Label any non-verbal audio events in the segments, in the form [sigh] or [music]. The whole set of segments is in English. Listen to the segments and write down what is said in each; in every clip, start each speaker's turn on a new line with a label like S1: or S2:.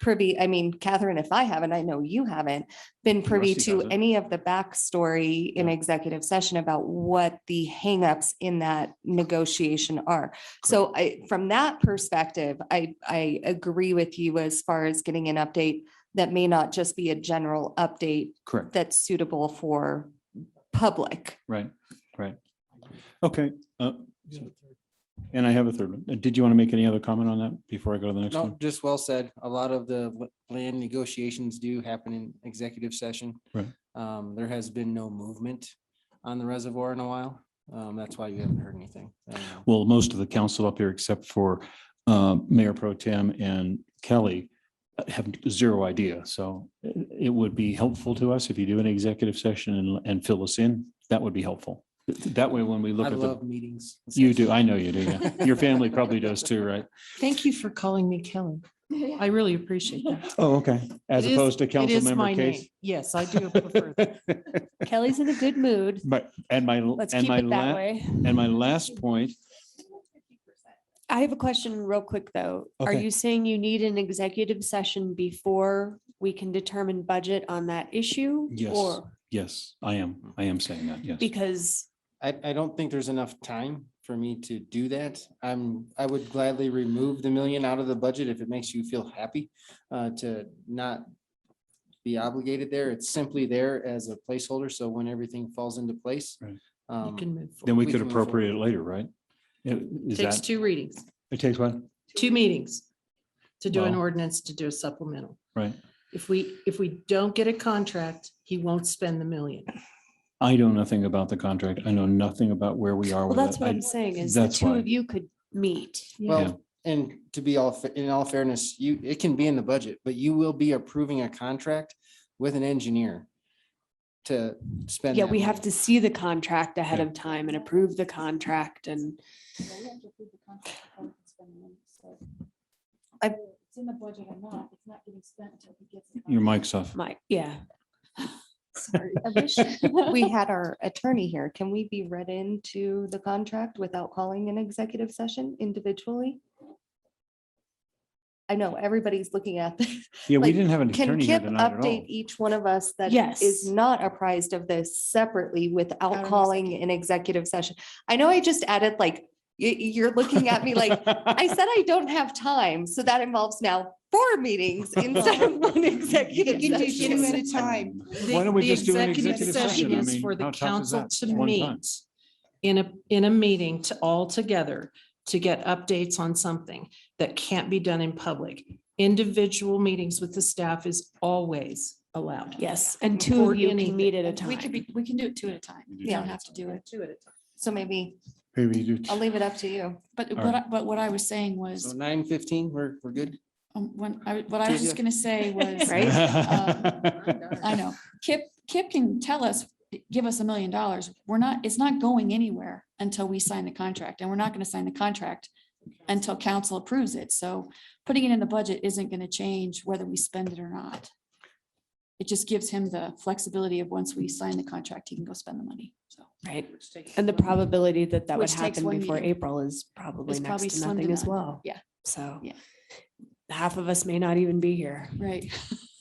S1: privy, I mean, Catherine, if I haven't, I know you haven't been privy
S2: Rusty
S1: to
S2: hasn't.
S1: any of the backstory in
S2: Yeah.
S1: executive session about what the hangups in that negotiation are. So I, from that perspective, I, I agree with you as far as getting an update that may not just be a general update
S2: Correct,
S1: that's suitable for public.
S2: right, right. Okay. uh, And I have a third one. Uh, Did you want to make any other comment on that before I go to the next
S3: No,
S2: one?
S3: just well said. A lot of the l- land negotiations do happen in executive session.
S2: Right.
S3: Um, there has been no movement on the reservoir in a while. Um, that's why you haven't heard anything. Um,
S2: Well, most of the council up here, except for uh, Mayor Pro Tem and Kelly, uh, have zero idea. So i- it would be helpful to us if you do an executive session and- and fill us in. That would be helpful. That way, when we look
S3: I
S2: at the,
S3: love meetings. and
S2: you do,
S3: sessions.
S2: I know you do.
S4: [laughs]
S2: yeah. Your family probably does too, right?
S4: Thank you for calling me Kelly. I really appreciate that.
S2: Oh, okay. As
S4: It is-
S2: opposed to
S4: It
S2: council
S4: is my
S2: member
S4: name.
S2: case.
S4: Yes, I
S2: [laughs]
S4: do prefer that.
S1: Kelly's in a good mood.
S2: But, and my,
S5: Let's
S2: and
S5: keep
S2: my,
S5: it that
S2: la-
S5: way.
S2: and my last point,
S5: I have a question real quick, though. Are
S2: Okay.
S5: you saying you need an executive session before we can determine budget on that issue?
S2: Yes.
S5: Or
S2: yes, I am, I am saying that, yes.
S5: because
S3: I, I don't think there's enough time for me to do that. I'm, I would gladly remove the million out of the budget if it makes you feel happy uh, to not be obligated there. It's simply there as a placeholder. So when everything falls into place.
S2: Right.
S3: um,
S4: You can move.
S2: Then
S4: forward.
S2: we
S3: we
S2: could
S3: can move forward.
S2: appropriate it later, right? It- Is
S4: Takes
S2: that,
S4: two readings,
S2: it takes one,
S4: two meetings to do an
S2: Well-
S4: ordinance, to do a supplemental.
S2: right?
S4: If we, if we don't get a contract, he won't spend the million.
S2: I know nothing about the contract. I know nothing about where we are with
S5: Well, that's
S2: it.
S5: what I'm
S2: I-
S5: saying is the
S2: that's
S5: two
S2: why.
S5: of you could meet.
S2: Yeah.
S3: Well, and to be all, fa- in all fairness, you, it can be in the budget, but you will be approving a contract with an engineer to spend.
S5: Yeah,
S3: that
S5: we
S3: money.
S5: have to see the contract ahead
S2: Yeah.
S5: of time and approve the contract and
S1: I-
S6: It's in the budget or not, it's not getting spent until he gets. the
S2: Your
S6: contract.
S2: mic's off.
S5: my, yeah. Sorry.
S1: I
S6: [laughs]
S1: wish
S4: [laughs]
S1: we had our attorney here. Can we be read into the contract without calling an executive session individually? I know everybody's looking at this.
S2: Yeah, we
S1: Like,
S2: didn't have an
S1: Can
S2: attorney here
S1: Kip
S2: tonight at all.
S1: update E each one of us that
S5: Yes.
S1: is not apprised of this separately without
S4: an
S1: calling an executive session? I know I just added like, you, you're looking at me
S2: [laughs]
S4: [laughs]
S1: like, I said I don't have time, so that involves now four meetings instead
S4: [laughs]
S1: of one executive
S4: You do two
S1: session.
S4: at a
S2: time.
S4: The-
S2: Why don't we
S4: the
S2: just do an executive session? I
S4: is
S2: mean,
S4: For
S2: how
S4: the
S2: tough is
S4: council
S2: that?
S4: to
S2: One time.
S4: meet in a, in a meeting to all together to get updates on something that can't be done in public. Individual meetings with the staff is always allowed.
S5: Yes, and two
S4: Or
S5: of you
S4: anything.
S5: can meet at a
S6: We could
S5: time.
S6: be, we can do it two at a time.
S2: You do
S6: You don't
S1: two
S6: have to do it. Two at a time.
S1: So maybe
S2: Maybe you do.
S1: I'll leave it up to you.
S6: But,
S2: All
S6: but,
S2: right.
S6: I- but what I was saying
S3: So
S6: was,
S3: nine fifteen, we're, we're good.
S6: um, when, I, what I was just
S3: Yeah.
S6: gonna say
S2: [laughs]
S6: was.
S5: Right?
S6: I know. Kip, Kip can tell us, give us a million dollars. We're not, it's not going anywhere until we sign the contract and we're not going to sign the contract until council approves it. So putting it in the budget isn't going to change whether we spend it or not. It just gives him the flexibility of once we sign the contract, he can go spend the money. So
S5: Right. And the probability that that would
S6: Which takes
S5: happen
S6: one
S5: before
S6: meeting.
S5: April is probably
S6: It's probably
S5: next to
S6: slim to
S5: nothing as
S6: none.
S5: well.
S6: Yeah.
S5: So.
S6: Yeah.
S5: Half of us may not even be here.
S6: right.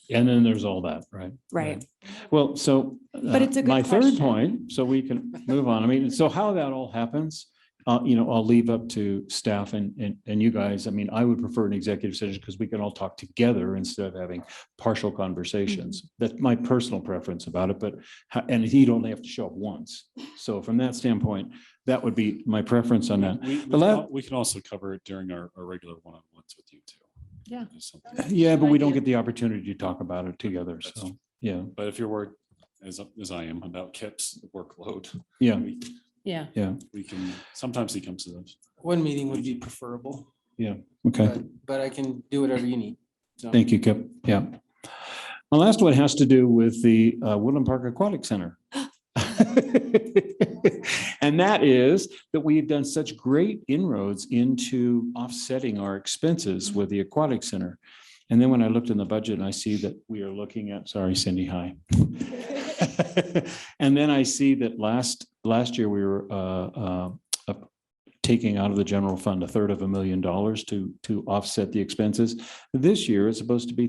S2: And then there's all that, right?
S5: Right.
S2: Well, so.
S5: But
S2: uh,
S5: it's a good
S2: My third
S5: question.
S2: point, so we can move on. I mean, so how that all happens, uh, you know, I'll leave up to staff and, and, and you guys. I mean, I would prefer an executive session because we can all talk together instead of having partial conversations.
S5: Mm-hmm.
S2: That's my personal preference about it, but, ho- and he don't have to show up once. So from that standpoint, that would be my preference on that.
S7: We, we,
S2: The
S7: can
S2: la-
S7: al- we can also cover it during our, our regular one-on-ones with you too.
S4: Yeah.
S7: There's something-
S2: Yeah, but we don't get the opportunity to talk about it together. So, yeah,
S7: But if you're worried, as, as I am, about Kip's workload,
S2: yeah,
S7: we,
S4: Yeah.
S7: we can, sometimes he comes to those.
S3: One meeting would be preferable,
S2: okay.
S3: but, but I can do whatever you need. So
S2: Thank you, Kip. Yeah. The last one has to do with the uh, Woodland Park Aquatic Center. [laughs] And that is that we have done such great inroads into offsetting our expenses with the aquatic center. And then when I looked in the budget and I see that we are looking at, sorry, Cindy, hi. [laughs] And then I see that last, last year we were uh, uh, taking out of the general fund a third of a million dollars to, to offset the expenses. This year, it's supposed to be